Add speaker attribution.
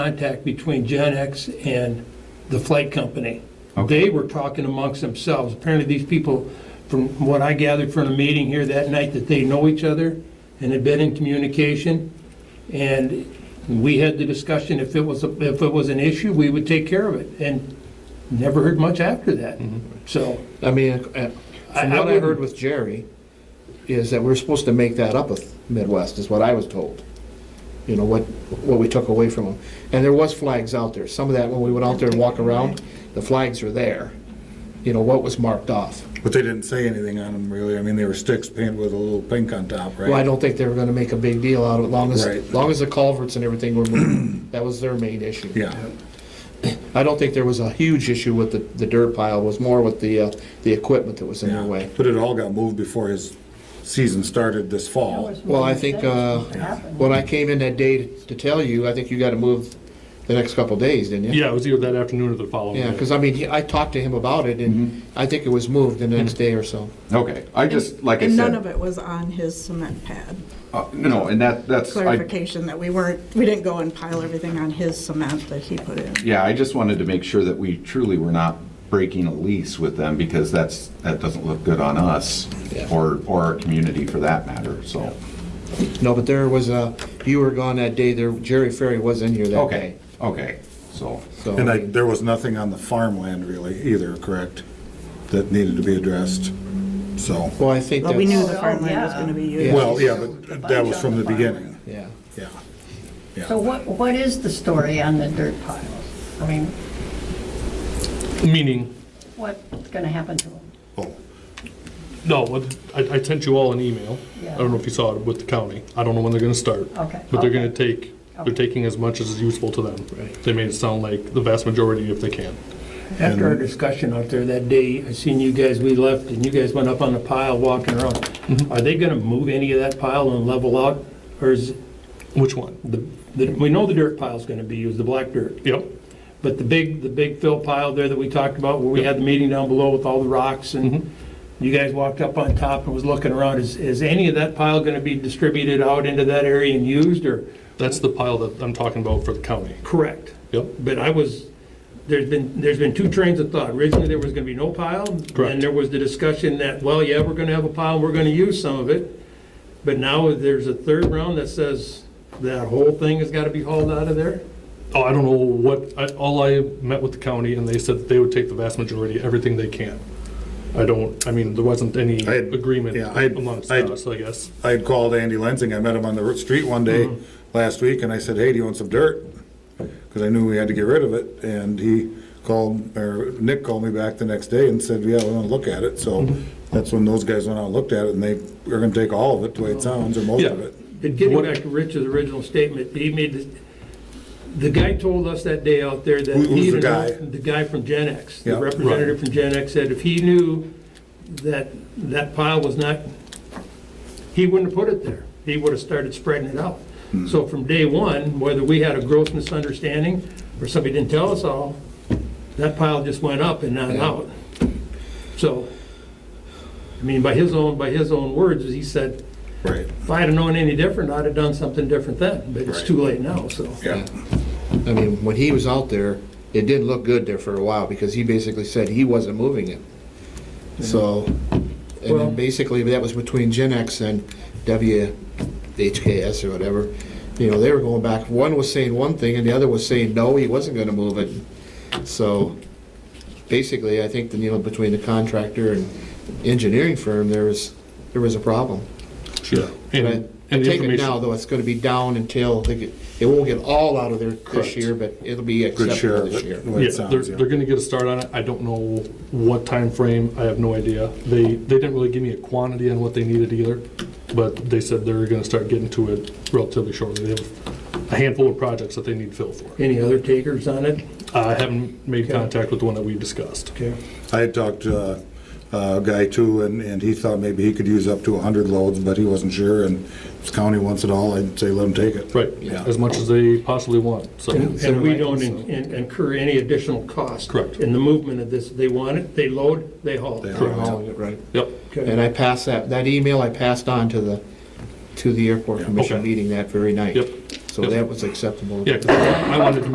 Speaker 1: contact between Gen X and the flight company.
Speaker 2: Okay.
Speaker 1: They were talking amongst themselves. Apparently, these people, from what I gathered from the meeting here that night, that they know each other and had been in communication. And we had the discussion, if it was, a- if it was an issue, we would take care of it. And never heard much after that. So
Speaker 3: I mean, uh,
Speaker 1: I-
Speaker 3: from
Speaker 1: I
Speaker 3: what I heard
Speaker 1: wouldn't-
Speaker 3: with Jerry, is that we're supposed to make that up with Midwest, is what I was told. You know, what, what we took away from them. And there was flags out there. Some of that, when we went out there and walk around, the flags were there. You know, what was marked off.
Speaker 4: But they didn't say anything on them really. I mean, they were sticks painted with a little pink on top, right?
Speaker 3: Well, I don't think they were gonna make a big deal out of it, long as,
Speaker 4: Right.
Speaker 3: long as the culverts and everything were moved. That was their main issue.
Speaker 4: Yeah.
Speaker 3: I don't think there was a huge issue with the, the dirt pile, it was more with the, uh, the equipment that was in their
Speaker 4: yeah.
Speaker 3: way.
Speaker 4: But it all got moved before his season started this fall.
Speaker 3: Well, I think, uh, when I came in that day to tell you, I think you gotta move the next couple days, didn't you?
Speaker 5: Yeah, it was either that afternoon or the following
Speaker 3: Yeah,
Speaker 5: day.
Speaker 3: because I mean, he- I talked to him about it, and I think it was moved the next day or so.
Speaker 2: Okay, I just, like I
Speaker 6: And none of
Speaker 2: said,
Speaker 6: it was on his cement pad.
Speaker 2: uh, no, and that, that's, I,
Speaker 6: Clarification that we weren't, we didn't go and pile everything on his cement that he put in.
Speaker 2: yeah, I just wanted to make sure that we truly were not breaking a lease with them because that's, that doesn't look good on us or, or our community for that matter, so.
Speaker 3: No, but there was a, you were gone that day, there, Jerry Ferry was in here that
Speaker 2: Okay,
Speaker 3: day.
Speaker 2: okay, so,
Speaker 3: So,
Speaker 4: And I,
Speaker 3: I mean,
Speaker 4: there was nothing on the farmland really either, correct? That needed to be addressed, so.
Speaker 3: well, I think
Speaker 6: But we knew
Speaker 3: that's,
Speaker 6: the farmland was gonna be used.
Speaker 4: Well, yeah, but that was from the beginning,
Speaker 3: yeah.
Speaker 4: yeah.
Speaker 7: So what, what is the story on the dirt piles? I mean,
Speaker 5: Meaning,
Speaker 7: what's going to happen to them?
Speaker 4: Oh,
Speaker 5: no, what- I, I sent you all an email.
Speaker 7: Yeah.
Speaker 5: I don't know if you saw it with the county. I don't know when they're gonna start.
Speaker 7: Okay.
Speaker 5: But
Speaker 7: Okay.
Speaker 5: they're gonna take, they're taking as much as is useful to them.
Speaker 3: Right.
Speaker 5: They made it sound like the vast majority if they can.
Speaker 1: After our discussion out there that day, I seen you guys, we left, and you guys went up on the pile walking around. Are they gonna move any of that pile and level out? Or is
Speaker 5: Which one?
Speaker 1: the, the- we know the dirt pile's gonna be used, the black dirt,
Speaker 5: Yep,
Speaker 1: but the big, the big fill pile there that we talked about, where we had the meeting down below with all the rocks, and you guys walked up on top and was looking around, is, is any of that pile gonna be distributed out into that area and used, or?
Speaker 5: that's the pile that I'm talking about for the county.
Speaker 1: Correct.
Speaker 5: Yep,
Speaker 1: But I was, there's been, there's been two trains of thought. Originally, there was gonna be no pile.
Speaker 5: Correct.
Speaker 1: And there was the discussion that, well, yeah, we're gonna have a pile, we're gonna use some of it. But now there's a third round that says that whole thing has gotta be hauled out of there?
Speaker 5: Oh, I don't know what, I, all I met with the county and they said that they would take the vast majority, everything they can. I don't, I mean, there wasn't any
Speaker 4: I had-
Speaker 5: agreement
Speaker 4: yeah, I had-
Speaker 5: amongst
Speaker 4: I had-
Speaker 5: us, I guess.
Speaker 4: I had called Andy Lensing, I met him on the street one day
Speaker 5: Mm-hmm.
Speaker 4: last week, and I said, hey, do you want some dirt? Because I knew we had to get rid of it, and he called, or Nick called me back the next day and said, yeah, we want to look at it, so
Speaker 5: Mm-hmm.
Speaker 4: that's when those guys went out and looked at it, and they were gonna take all of it, the way it sounds, or most of
Speaker 5: Yeah.
Speaker 4: it.
Speaker 1: But getting
Speaker 5: What-
Speaker 1: back to Rich's original statement, he made, this- the guy told us that day out there that
Speaker 4: Who- who's
Speaker 1: he...
Speaker 4: the
Speaker 1: didn't-
Speaker 4: guy?
Speaker 1: The guy from Gen X,
Speaker 4: Yeah.
Speaker 1: the
Speaker 4: Right.
Speaker 1: representative from Gen X said if he knew that that pile was not, he wouldn't have put it there. He would have started spreading it out.
Speaker 4: Hmm.
Speaker 1: So from day one, whether we had a gross misunderstanding or somebody didn't tell us all, that pile just went up and not out. So, I mean, by his own, by his own words, he said,
Speaker 4: Right,
Speaker 1: if I'd have known any different, I'd have done something different then, but it's
Speaker 4: Right.
Speaker 1: too late now, so.
Speaker 4: yeah.
Speaker 3: I mean, when he was out there, it did look good there for a while, because he basically said he wasn't moving it. So, and
Speaker 1: Well-
Speaker 3: then basically, that was between Gen X and WHKS or whatever. You know, they were going back, one was saying one thing, and the other was saying, no, he wasn't gonna move it. So, basically, I think, that, you know, between the contractor and engineering firm, there was, there was a problem.
Speaker 5: Sure.
Speaker 3: But
Speaker 5: And,
Speaker 3: I
Speaker 5: and the
Speaker 3: take it
Speaker 5: information.
Speaker 3: now, though, it's gonna be down until, they get- it won't get all out of there this
Speaker 5: Correct.
Speaker 3: year, but it'll be
Speaker 4: Good share
Speaker 3: acceptable
Speaker 4: of
Speaker 3: this
Speaker 4: it,
Speaker 3: year.
Speaker 4: the way it
Speaker 5: Yeah, they're,
Speaker 4: sounds, yeah.
Speaker 5: they're gonna get a start on it. I don't know what time frame. I have no idea. They, they didn't really give me a quantity on what they needed either, but they said they're gonna start getting to it relatively shortly. They have a handful of projects that they need fill for.
Speaker 1: Any other takers on it?
Speaker 5: I haven't made
Speaker 1: Okay.
Speaker 5: contact with the one that we discussed.
Speaker 1: Okay.
Speaker 4: I had talked to uh, a guy too, and, and he thought maybe he could use up to 100 loads, but he wasn't sure, and if the county wants it all, I'd say let him take it.
Speaker 5: Right,
Speaker 4: Yeah.
Speaker 5: as much as they possibly want, so.
Speaker 1: And and we don't in- in- incur any additional cost.
Speaker 5: Correct.
Speaker 1: In the movement of this, they want it, they load, they haul.
Speaker 4: They
Speaker 3: They're hauling it, Right.
Speaker 5: Yep,
Speaker 3: And
Speaker 1: Okay.
Speaker 3: I passed that, that email I passed on to the, to the airport commission
Speaker 5: Okay.
Speaker 3: meeting that very night.
Speaker 5: Yep.
Speaker 3: So
Speaker 5: Yep.
Speaker 3: that was acceptable.
Speaker 5: yeah, 'cause I wanted to